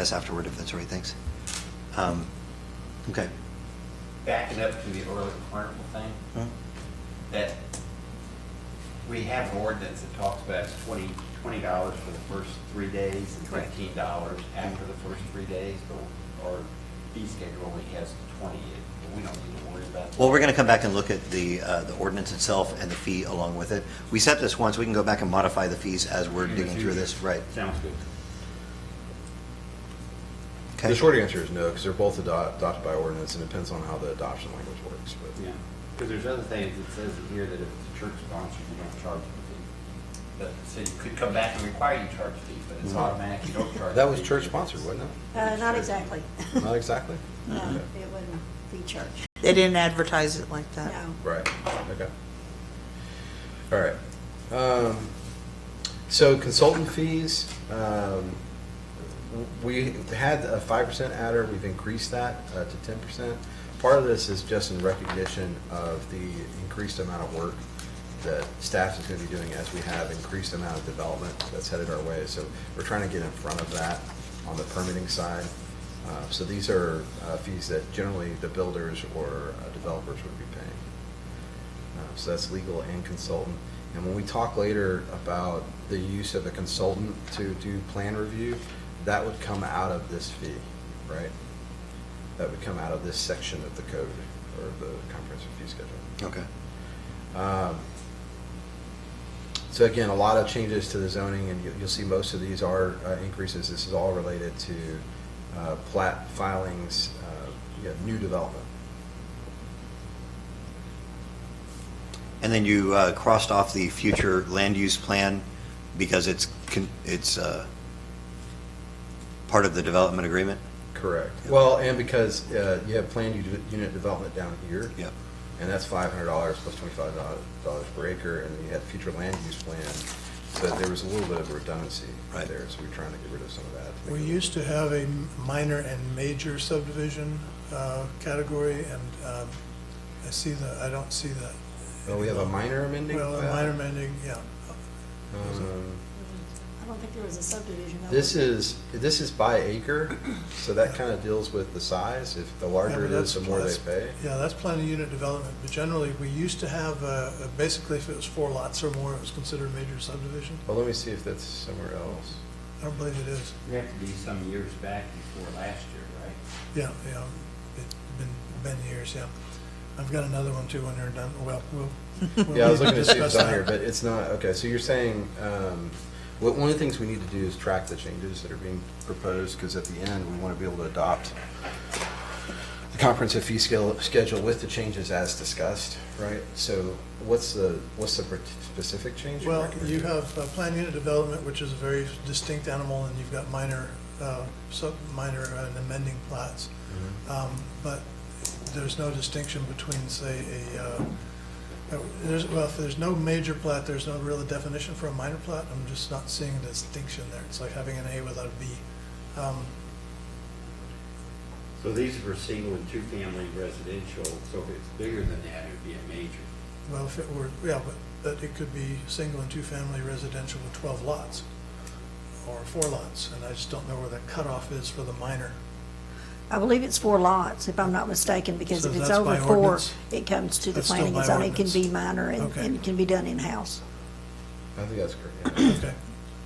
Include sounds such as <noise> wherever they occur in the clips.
us afterward, if that's all right, thanks. Um, Okay. Backing up to the early carnival thing, that we have an ordinance that talks about twenty, twenty dollars for the first three days and Correct. fifteen dollars after the first three days, but our fee schedule only has twenty, and we don't need to worry about that. Well, we're going to come back and look at the, uh, the ordinance itself and the fee along with it. We set this once, we can go back and modify the fees as we're digging through this, right? Sounds good. Okay. The short answer is no, because they're both ado- adopted by ordinance, and it depends on how the adoption language works, but. Yeah, because there's other things, it says in here that if it's a church sponsor, you don't charge a fee. But, so you could come back and require you to charge a fee, but it's Mhm. automatic, you don't charge. a That was fee. church sponsored, wasn't it? Uh, Not exactly. Not exactly? <laughs> No, Okay. it wouldn't be church, They didn't advertise it like that. no. Right, okay. All right. Um, So consultant fees, um, we had a five percent adder, we've increased that uh, to ten percent. Part of this is just in recognition of the increased amount of work that staff is gonna be doing as we have increased amount of development that's headed our way. So we're trying to get in front of that on the permitting side. Uh, So these are uh, fees that generally the builders or uh, developers would be paying. Uh, So that's legal and consultant. And when we talk later about the use of a consultant to do plan review, that would come out of this fee, right? That would come out of this section of the code or the comprehensive fee schedule. Okay. Um, So again, a lot of changes to the zoning, and you- you'll see most of these are uh, increases. This is all related to uh, plat filings, uh, you know, new development. And then you uh, crossed off the future land use plan because it's, con- it's uh, part of the development agreement? Correct. Yeah. Well, and because uh, you have planned u- unit development down here. Yep. And that's five hundred dollars plus twenty-five dollars per acre, and then you had future land use plan. So there was a little bit of redundancy Right. there, so we we're trying to get rid of some of that. We used to have a minor and major subdivision uh, category, and um, I see that, I don't see that. Well, Oh, we have a minor amending? Well, a Uh, minor amending, yeah. um, I don't think there was a subdivision. though. This is, this is by acre, so that kind of deals with the size. If the larger Yeah, it but is, that's- the more they that's- pay. Yeah, that's planning unit development, but generally, we used to have, uh, basically, if it was four lots or more, it was considered a major subdivision. Well, let me see if that's somewhere else. I don't believe it is. We have to be some years back before last year, right? Yeah, yeah, it's been, been years, yeah. I've got another one too when you're done, well, we'll. <laughs> we'll Yeah, I was need looking to see if discuss it's on that. here, but it's not, okay, so you're saying, um, what, one of the things we need to do is track the changes that are being proposed, because at the end, we want to be able to adopt the comprehensive fee scale, schedule with the changes as discussed, right? So what's the, what's the per- specific change? you're Well, recommending? you have uh, planned unit development, which is a very distinct animal, and you've got minor, uh, sub, minor and amending plats. Um, But there's no distinction between, say, a, uh, uh, there's, well, if there's no major plat, there's no real definition for a minor plat. I'm just not seeing a distinction there. It's like having an A without a B. Um, So these were single and two-family residential, so if it's bigger than that, it'd be a major. Well, if it were, yeah, but, but it could be single and two-family residential with 12 lots or four lots, and I just don't know where the cutoff is for the minor. I believe it's four lots, if I'm not mistaken, because So if it's that's over by four, ordinance? it comes to the That's still planning and by zoning, it can ordinance. be minor and, Okay. and can be done in-house. I think that's correct. yeah. Okay,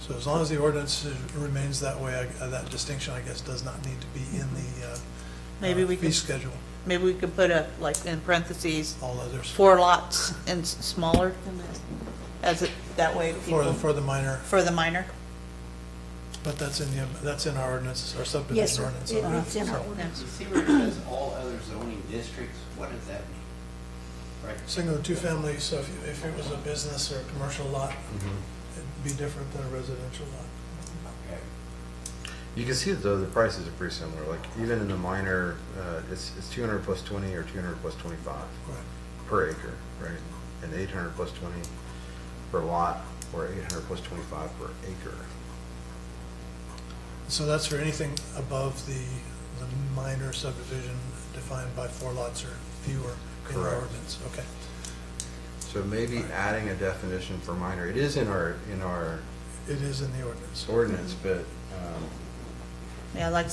so as long as the ordinance is- remains that way, I- uh, that distinction, I guess, does not need to be in the uh, Maybe uh, we fee can, schedule, maybe we could put a, like, in parentheses, all others, four lots and s- smaller than this, as it, that way for, people, for the minor, for the minor. but that's in the, that's in our ordinance, our Yes, subdivision sir, ordinance. It- Uh-huh. it's in our So, ordinance. You see where it says all other zoning districts, what does that mean? Right, Single and two-family, so if, you- if it was a business or a commercial lot, it'd be different than a residential lot. okay. You can see though, the prices are pretty similar, like even in the minor, uh, it's, it's two hundred plus twenty or two hundred plus twenty-five. Right. per acre, right? And eight hundred plus twenty per lot, or eight hundred plus twenty-five per acre. So that's for anything above the, the minor subdivision defined by four lots or fewer in our Correct. ordinance, okay. So maybe adding a definition for minor, it is in our, in our It is in the ordinance. ordinance, but um, Yeah, I'd like to